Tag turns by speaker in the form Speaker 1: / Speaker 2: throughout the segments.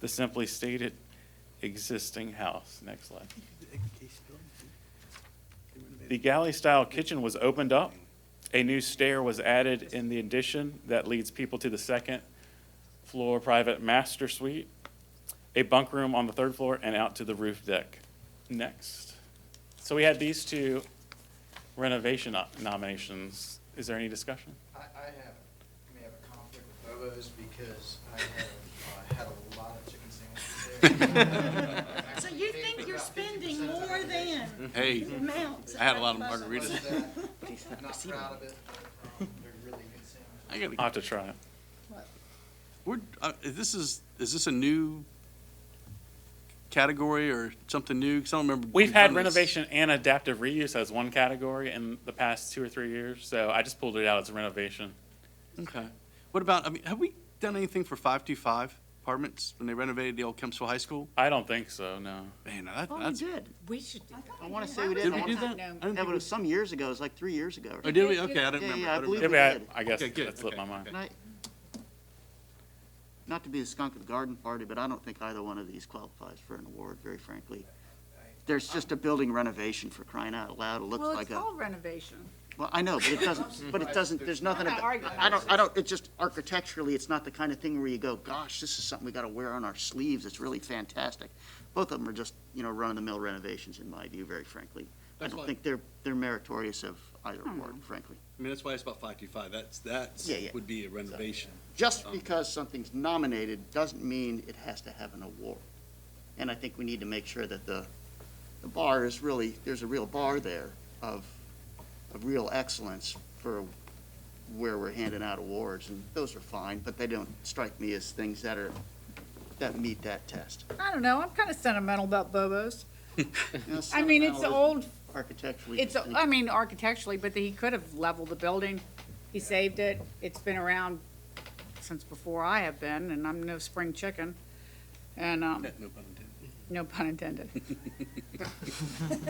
Speaker 1: the simply stated existing house. Next slide. The galley-style kitchen was opened up. A new stair was added in the addition that leads people to the second floor private master suite, a bunk room on the third floor, and out to the roof deck. Next. So we had these two renovation o- nominations. Is there any discussion?
Speaker 2: I, I have, I may have a conflict with Bobo's because I have, uh, had a lot of chicken sandwiches there.
Speaker 3: So you think you're spending more than
Speaker 4: Hey,
Speaker 3: the amount?
Speaker 4: I had a lot of
Speaker 3: Buffalo.
Speaker 2: Much of
Speaker 4: margaritas.
Speaker 2: that, I'm Not proud of it, but, um, they're really good sandwiches.
Speaker 4: I gotta,
Speaker 1: I'll have to try it.
Speaker 4: we're, uh, this is, is this a new category or something new? 'Cause I don't remember.
Speaker 1: We've had
Speaker 4: done this.
Speaker 1: renovation and adaptive reuse as one category in the past two or three years, so I just pulled it out as a renovation.
Speaker 4: Okay. What about, I mean, have we done anything for five-two-five apartments when they renovated the old Kempsville High School?
Speaker 1: I don't think so, no.
Speaker 4: Man, that,
Speaker 3: Oh, we
Speaker 4: that's,
Speaker 3: did. We should do that.
Speaker 5: I want to say we
Speaker 3: Did
Speaker 5: did.
Speaker 4: we
Speaker 5: I
Speaker 4: do
Speaker 5: wanna-
Speaker 4: that? I didn't
Speaker 5: Yeah,
Speaker 4: think
Speaker 5: but it
Speaker 4: we-
Speaker 5: was some years ago. It was like three years ago. or
Speaker 4: oh,
Speaker 5: something.
Speaker 4: did we? Okay, I don't
Speaker 5: Yeah,
Speaker 4: remember.
Speaker 5: yeah, I
Speaker 4: don't
Speaker 5: believe
Speaker 1: Yeah,
Speaker 4: remember.
Speaker 1: but I-
Speaker 5: did.
Speaker 1: I guess
Speaker 4: Okay, good,
Speaker 1: that slipped my
Speaker 4: okay.
Speaker 1: mind.
Speaker 5: And I- Not to be the skunk of the garden party, but I don't think either one of these qualifies for an award, very frankly. There's just a building renovation for crying out loud. It looks
Speaker 6: Well,
Speaker 5: like
Speaker 6: it's
Speaker 5: a,
Speaker 6: all renovation.
Speaker 5: well, I know, but it doesn't, but it doesn't, there's nothing
Speaker 6: not
Speaker 5: about,
Speaker 6: arguing.
Speaker 5: I don't, I don't, it's just architecturally, it's not the kind of thing where you go, gosh, this is something we got to wear on our sleeves. It's really fantastic. Both of them are just, you know, run-of-the-mill renovations in my view, very frankly. I
Speaker 4: That's
Speaker 5: don't
Speaker 4: fine.
Speaker 5: think they're, they're meritorious of either award, frankly.
Speaker 4: I mean, that's why it's about five-two-five. That's, that's,
Speaker 5: Yeah, yeah.
Speaker 4: would be a renovation. Um,
Speaker 5: just because something's nominated doesn't mean it has to have an award. And I think we need to make sure that the, the bar is really, there's a real bar there of, of real excellence for where we're handing out awards, and those are fine, but they don't strike me as things that are, that meet that test.
Speaker 6: I don't know, I'm kind of sentimental about Bobo's.
Speaker 5: You know,
Speaker 6: I mean, it's
Speaker 5: sentimental
Speaker 6: old,
Speaker 5: Architecturally.
Speaker 6: it's, I mean, architecturally, but he could have leveled the building. He saved it. It's been around since before I have been, and I'm no spring chicken. And, um,
Speaker 4: No pun intended.
Speaker 6: no pun intended.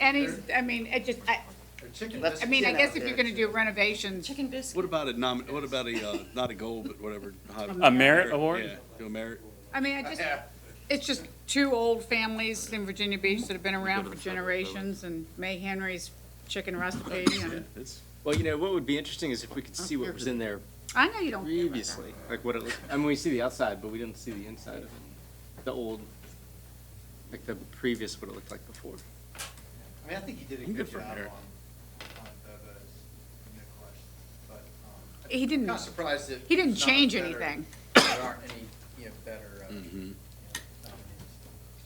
Speaker 6: And he's, I mean, it just, I,
Speaker 2: Their chicken
Speaker 5: Let's-
Speaker 6: I
Speaker 2: biscuits,
Speaker 6: mean, I
Speaker 5: Get
Speaker 6: guess
Speaker 5: out
Speaker 6: if you're
Speaker 5: there.
Speaker 6: gonna do renovations,
Speaker 3: Chicken biscuit.
Speaker 4: What about a nom, what about a, uh, not a goal, but whatever?
Speaker 1: A merit award?
Speaker 4: Yeah, do a merit.
Speaker 6: I mean, I just, it's just two old families in Virginia
Speaker 5: Mm-hmm.
Speaker 6: Beach that have been around for generations, and May Henry's Chicken Recipe,
Speaker 2: Oh,
Speaker 6: and,
Speaker 4: It's-
Speaker 7: Well, you know, what would be interesting is if we could see what was in there
Speaker 6: I know you don't care about that.
Speaker 7: previously, like what it, looked- I mean, we see the outside, but we didn't see the inside of it. The old, like the previous, what it looked like before.
Speaker 2: I mean, I think he did a
Speaker 4: I'm good
Speaker 2: good
Speaker 4: for
Speaker 2: job on, on
Speaker 4: Eric.
Speaker 2: Bobo's, no question, but, um. I'm
Speaker 6: He didn't-
Speaker 2: Kind of surprised that.
Speaker 6: Hmm. he didn't
Speaker 2: there's not
Speaker 6: change
Speaker 2: better-
Speaker 6: anything.
Speaker 2: There aren't any, you know, better, uh, you know, nominees.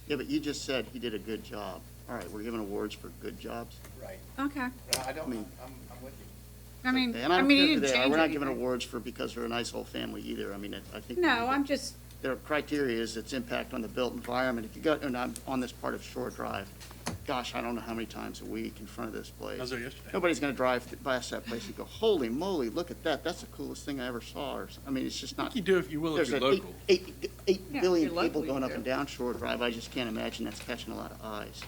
Speaker 5: Yeah, but you just said he did a good job. All right, we're giving awards for good jobs.
Speaker 2: right.
Speaker 6: Okay,
Speaker 2: I don't,
Speaker 5: I mean-
Speaker 2: I'm, I'm with you.
Speaker 6: I mean,
Speaker 5: Okay, and
Speaker 6: I
Speaker 5: don't
Speaker 6: mean, he
Speaker 5: care who
Speaker 6: didn't
Speaker 5: they are.
Speaker 6: change
Speaker 5: We're not giving
Speaker 6: anything.
Speaker 5: awards for because we're a nice old family either. I mean, it- I think. we need
Speaker 6: No,
Speaker 5: to-
Speaker 6: I'm just,
Speaker 5: Their criteria is its impact on the built environment. If you go, and I'm on this part of Shore Drive, gosh, I don't know how many times a week in front of this
Speaker 4: I was
Speaker 5: place.
Speaker 4: there yesterday.
Speaker 5: Nobody's gonna drive th- past that place and go, holy moly, look at that. That's the coolest thing I ever saw. Or s- I mean, it's just
Speaker 4: I think
Speaker 5: not.
Speaker 4: you do if you will, if
Speaker 5: There's
Speaker 4: you're
Speaker 5: an
Speaker 4: local.
Speaker 5: eight- eight- eight
Speaker 6: Yeah, if
Speaker 5: billion
Speaker 6: you're
Speaker 5: people
Speaker 6: local, you
Speaker 5: going up
Speaker 6: do.
Speaker 5: and down Shore Drive. I just can't imagine that's catching a lot of eyes.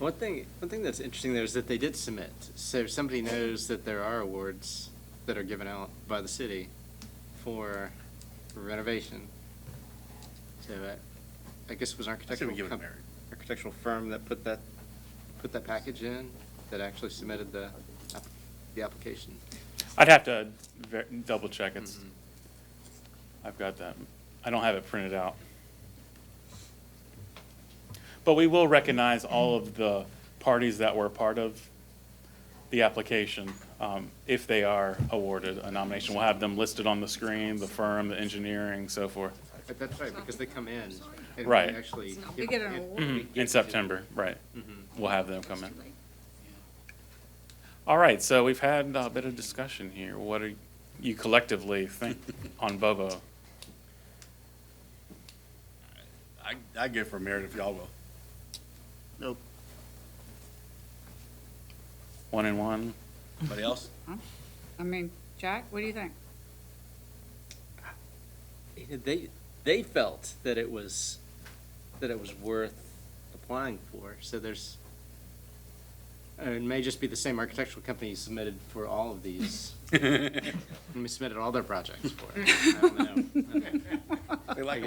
Speaker 7: One thing, one thing that's interesting there is that they did submit, so somebody knows that there are awards that are given out by the city for renovation. So uh, I, I guess it was an
Speaker 4: I say we
Speaker 7: architectural
Speaker 4: give it a
Speaker 7: com-
Speaker 4: merit.
Speaker 7: architectural firm that put that, put that package in, that actually submitted the, app- the application.
Speaker 1: I'd have to ver- double check it's,
Speaker 4: Mm-hmm.
Speaker 1: I've got that, I don't have it printed out. But we will recognize all of the parties that were part of the application, um, if they are awarded a nomination. We'll have them listed on the screen, the firm, the engineering, so forth,
Speaker 7: But that's right, because they come in and they
Speaker 1: Right.
Speaker 7: actually.
Speaker 6: we get an award.
Speaker 4: Hmm.
Speaker 1: in September, right.
Speaker 4: Mm-hmm.
Speaker 1: We'll have them come in. All right, so we've had a bit of discussion here. What do you collectively think on Bobo?
Speaker 4: I, I go for a merit if y'all will.
Speaker 5: Nope.
Speaker 1: One and one?
Speaker 4: Anybody else?
Speaker 6: I mean, Jack, what do you think?
Speaker 7: You know, They, they felt that it was, that it was worth applying for, so there's, uh, it may just be the same architectural company who submitted for all of these. And we submitted all their projects for it. I don't know.
Speaker 4: They like